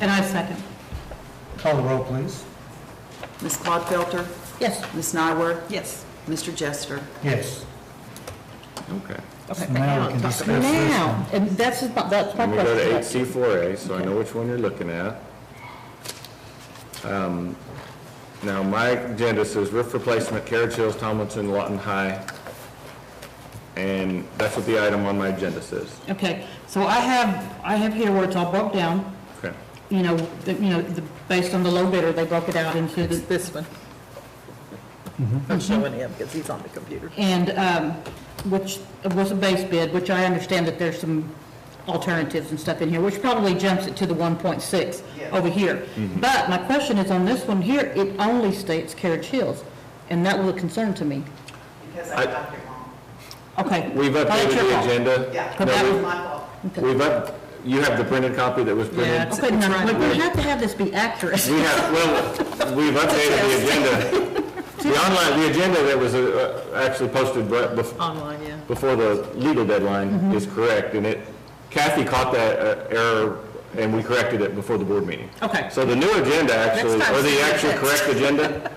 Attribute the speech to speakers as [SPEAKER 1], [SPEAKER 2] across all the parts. [SPEAKER 1] And I second.
[SPEAKER 2] Call the roll, please.
[SPEAKER 3] Ms. Claude Felter,
[SPEAKER 1] Yes.
[SPEAKER 3] Ms. Nywer,
[SPEAKER 1] Yes.
[SPEAKER 3] Mr. Jester.
[SPEAKER 2] Yes.
[SPEAKER 4] Okay.
[SPEAKER 2] So Now we can discuss this.
[SPEAKER 1] Now, and that's, his- that's my
[SPEAKER 4] And we'll go to eight
[SPEAKER 1] question.
[SPEAKER 4] C four A, so I know which one you're looking at. Um, Now, my agenda says roof replacement, Carriage Hills, Tomlinson, Lawton High. And that's what the item on my agenda says.
[SPEAKER 1] Okay, so I have, I have here where it's all broke down,
[SPEAKER 4] Okay.
[SPEAKER 1] you know, the- you know, the- based on the low bidder, they broke it out into the,
[SPEAKER 5] This one.
[SPEAKER 4] Mm-hmm.
[SPEAKER 5] I'm showing him because he's on the computer.
[SPEAKER 1] and, um, which was a base bid, which I understand that there's some alternatives and stuff in here, which probably jumps it to the 1.6 over here.
[SPEAKER 4] Mm-hmm.
[SPEAKER 1] But my question is on this one here, it only states Carriage Hills, and that was a concern to me.
[SPEAKER 6] Because
[SPEAKER 4] I-
[SPEAKER 6] I got it wrong.
[SPEAKER 1] Okay.
[SPEAKER 4] We've
[SPEAKER 1] Well, that's
[SPEAKER 4] updated
[SPEAKER 1] your
[SPEAKER 4] the
[SPEAKER 1] fault.
[SPEAKER 4] agenda.
[SPEAKER 6] Yeah,
[SPEAKER 4] No,
[SPEAKER 6] that
[SPEAKER 4] we've-
[SPEAKER 6] was my fault.
[SPEAKER 1] Okay.
[SPEAKER 4] We've up, you have the printed copy that was printed?
[SPEAKER 5] Yeah, it's-
[SPEAKER 1] Okay, now,
[SPEAKER 5] right
[SPEAKER 1] but we
[SPEAKER 4] away.
[SPEAKER 1] have to have this be accurate.
[SPEAKER 4] We have, well, we've updated the agenda. The online, the agenda that was uh, actually posted right bef-
[SPEAKER 5] Online, yeah.
[SPEAKER 4] before the legal deadline is correct, and it, Kathy caught that uh, error, and we corrected it before the board meeting.
[SPEAKER 1] Okay.
[SPEAKER 4] So the new agenda, actually,
[SPEAKER 5] time,
[SPEAKER 4] or
[SPEAKER 5] send
[SPEAKER 4] the
[SPEAKER 5] it
[SPEAKER 4] actual
[SPEAKER 5] back.
[SPEAKER 4] correct agenda,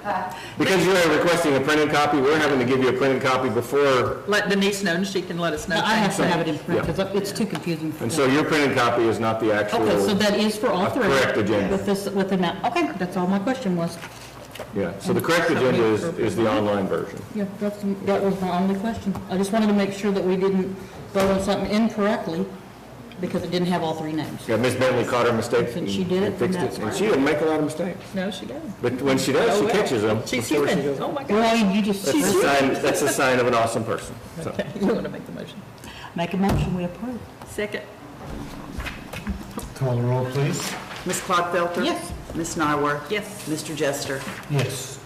[SPEAKER 4] because you are requesting a printed copy, we're having to give you a printed copy before,
[SPEAKER 5] Let Denise know, and she can let us know.
[SPEAKER 1] I have to have it in print,
[SPEAKER 4] Yeah.
[SPEAKER 1] because it's too confusing for
[SPEAKER 4] and
[SPEAKER 1] them.
[SPEAKER 4] so your printed copy is not the actual.
[SPEAKER 1] Okay, so that is for all
[SPEAKER 4] A
[SPEAKER 1] three?
[SPEAKER 4] correct agenda.
[SPEAKER 1] With this, with the, map. okay, that's all my question was.
[SPEAKER 4] Yeah, so the correct agenda is, is the online version.
[SPEAKER 1] Yeah, that's, that was my only question. I just wanted to make sure that we didn't vote on something incorrectly, because it didn't have all three names.
[SPEAKER 4] Yeah, Ms. Bentley caught her mistake.
[SPEAKER 1] Since she did it,
[SPEAKER 4] and fixed
[SPEAKER 1] then that's
[SPEAKER 4] And
[SPEAKER 1] fine.
[SPEAKER 4] she didn't make a lot of mistakes,
[SPEAKER 5] No, she doesn't.
[SPEAKER 4] but when she does,
[SPEAKER 5] Oh,
[SPEAKER 4] she
[SPEAKER 5] well.
[SPEAKER 4] catches them.
[SPEAKER 5] She's
[SPEAKER 4] before she
[SPEAKER 5] human.
[SPEAKER 4] goes.
[SPEAKER 5] Oh, my God.
[SPEAKER 1] Well, you just,
[SPEAKER 4] That's a sign, that's a sign of an awesome person, so.
[SPEAKER 5] Okay, you want to make the motion?
[SPEAKER 1] make a motion, we approve.
[SPEAKER 5] Second.
[SPEAKER 2] Call the roll, please.
[SPEAKER 3] Ms. Claude Felter.
[SPEAKER 1] Yes.
[SPEAKER 3] Ms. Nywer.
[SPEAKER 5] Yes.
[SPEAKER 3] Mr. Jester.
[SPEAKER 2] Yes.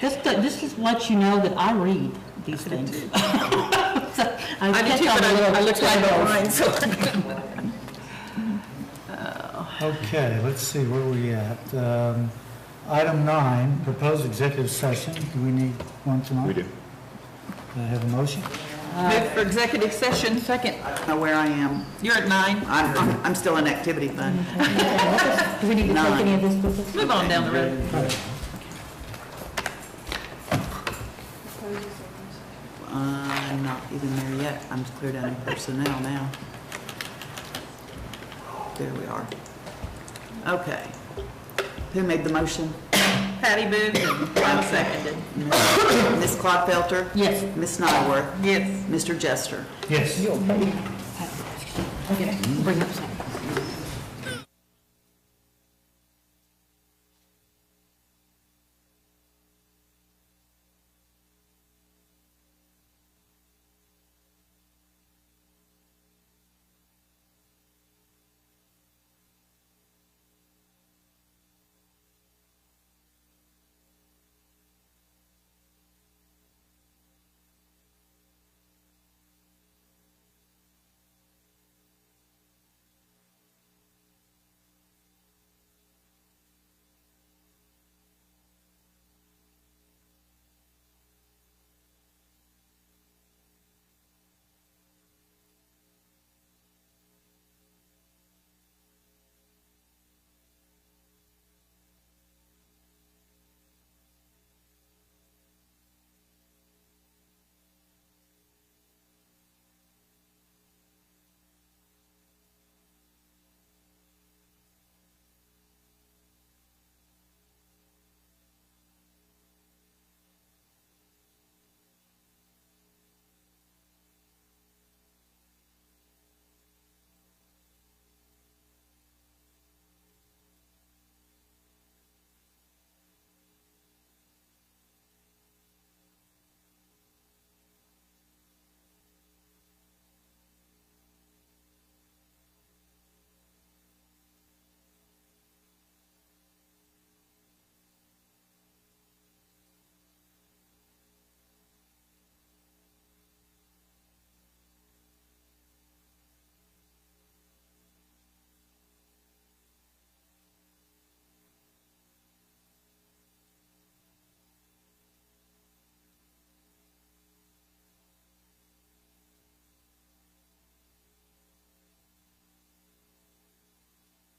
[SPEAKER 1] This, this just lets you know that I read these things. So, I
[SPEAKER 5] I
[SPEAKER 1] catch
[SPEAKER 5] did too,
[SPEAKER 1] all
[SPEAKER 5] but
[SPEAKER 1] the
[SPEAKER 5] I
[SPEAKER 1] little
[SPEAKER 5] I looked like
[SPEAKER 1] typos.
[SPEAKER 5] mine, so.
[SPEAKER 2] Okay, let's see, where are we at? Um, Item nine, proposed executive session. Do we need one tonight?
[SPEAKER 4] We do.
[SPEAKER 2] Do I have a motion?
[SPEAKER 5] Move for Uh, executive session. Second.
[SPEAKER 3] I don't know where I am.
[SPEAKER 5] You're at nine.
[SPEAKER 3] I'm, I'm- I'm still in activity fund.
[SPEAKER 1] Do we need to take any of this with us?
[SPEAKER 5] Move on down the road.
[SPEAKER 3] I'm not even there yet. I'm clear down in personnel now. There we are. Okay. Who made the motion?
[SPEAKER 5] Patty moved and Lana seconded.
[SPEAKER 3] Ms. Claude Felter?
[SPEAKER 1] Yes.
[SPEAKER 3] Ms. Nywer?
[SPEAKER 5] Yes.
[SPEAKER 3] Mr. Jester?
[SPEAKER 2] Yes.
[SPEAKER 1] Okay, Bring it up.